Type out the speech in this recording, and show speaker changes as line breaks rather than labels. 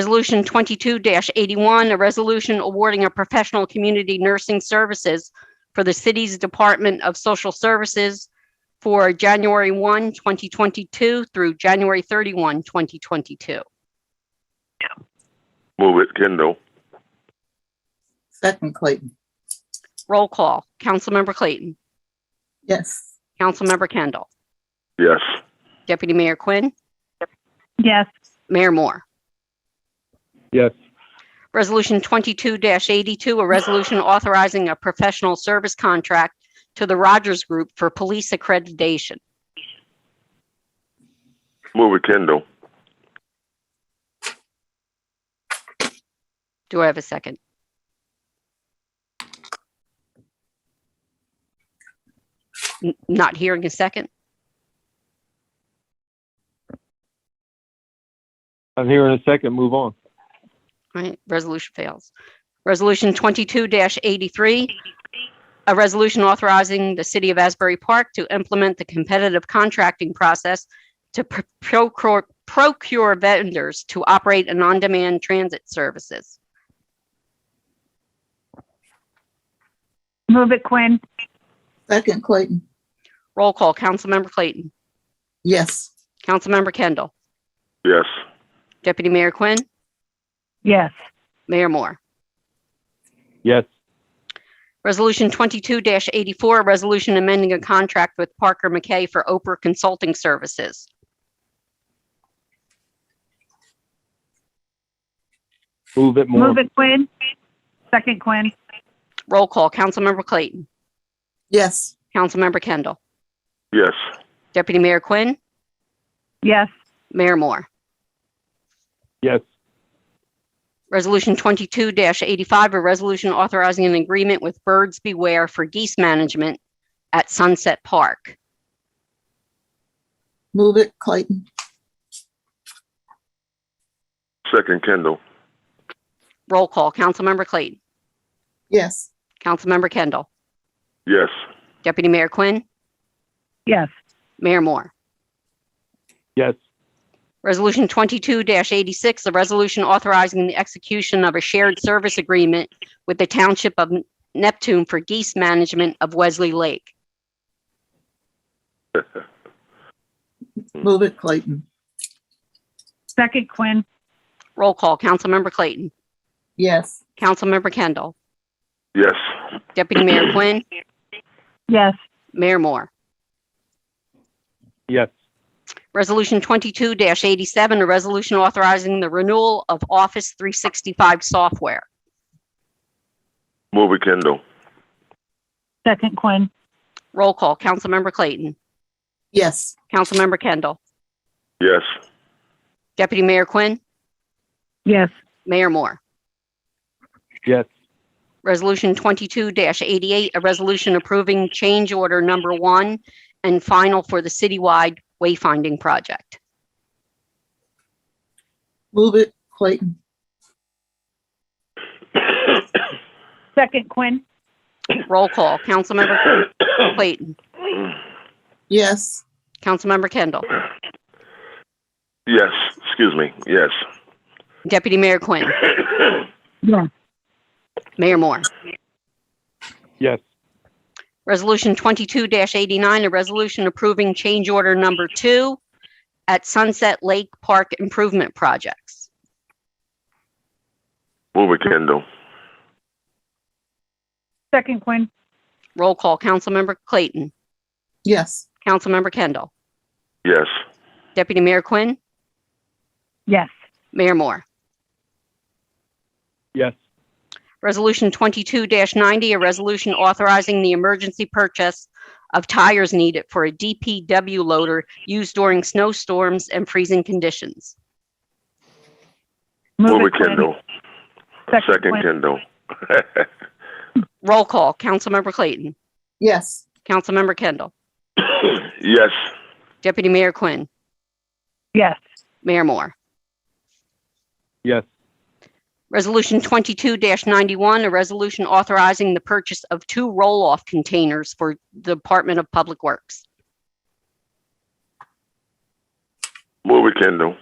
Resolution 22-81, a resolution awarding a professional community nursing services for the city's Department of Social Services for January 1, 2022 through January 31, 2022.
Move it, Kindle.
Second Clayton,
Roll call. Councilmember Clayton.
yes.
Councilmember Kendall.
Yes.
Deputy Mayor Quinn.
yes,
Mayor Moore.
yes,
Resolution 22-82, a resolution authorizing a professional service contract to the Rogers Group for police accreditation.
Move it, Kindle.
Do I have a second? N- Not hearing a second?
I'm here in a second, move on.
All Right, resolution fails. Resolution 22-83, a resolution authorizing the City of Asbury Park to implement the competitive contracting process to pr- procure procure vendors to operate an on-demand transit services.
move it Quinn,
Second Clayton,
Roll call, Councilmember Clayton.
yes.
Councilmember Kendall.
Yes.
Deputy Mayor Quinn.
yes,
Mayor Moore.
Yes,
Resolution 22-84, a resolution amending a contract with Parker McKay for Oprah Consulting Services.
move it more.
move it Quinn, second Quinn,
Roll call, Councilmember Clayton.
Yes,
Councilmember Kendall.
Yes.
Deputy Mayor Quinn.
yes,
Mayor Moore.
Yes,
Resolution 22-85, a resolution authorizing an agreement with Birds Beware for geese management at Sunset Park.
move it Clayton,
Second Kindle.
Roll call, Councilmember Clayton.
yes.
Councilmember Kendall.
Yes.
Deputy Mayor Quinn.
yes,
Mayor Moore.
yes,
Resolution 22-86, a resolution authorizing the execution of a shared service agreement with the Township of Neptune for geese management of Wesley Lake.
Move it Clayton,
second Quinn,
Roll call, Councilmember Clayton.
yes.
Councilmember Kendall.
Yes.
Deputy Mayor Quinn.
yes,
Mayor Moore.
yes,
Resolution 22-87, a resolution authorizing the renewal of Office 365 software.
Move it, Kindle.
second Quinn,
Roll call, Councilmember Clayton.
Yes,
Councilmember Kendall.
Yes.
Deputy Mayor Quinn.
yes,
Mayor Moore.
yes,
Resolution 22-88, a resolution approving change order number one and final for the citywide wayfinding project.
move it Clayton,
second Quinn,
Roll call, Councilmember Clayton,
yes.
Councilmember Kendall,
yes. Excuse me. Yes.
Deputy Mayor Quinn,
yes,
Mayor Moore.
yes,
Resolution 22-89, a resolution approving change order number two at Sunset Lake Park Improvement Projects.
Move it, Kindle.
second Quinn,
Roll call, Councilmember Clayton,
Yes,
Councilmember Kendall,
Yes.
Deputy Mayor Quinn,
yes,
Mayor Moore.
yes,
Resolution 22-90, a resolution authorizing the emergency purchase of tires needed for a DPW loader used during snowstorms and freezing conditions.
Move it,
Quinn,
Kindle. Second Kindle.
Roll call, Councilmember Clayton,
yes.
Councilmember Kendall,
yes.
Deputy Mayor Quinn,
yes,
Mayor Moore.
yes,
Resolution 22-91, a resolution authorizing the purchase of two roll-off containers for the Department of Public Works.
Move it, Kindle.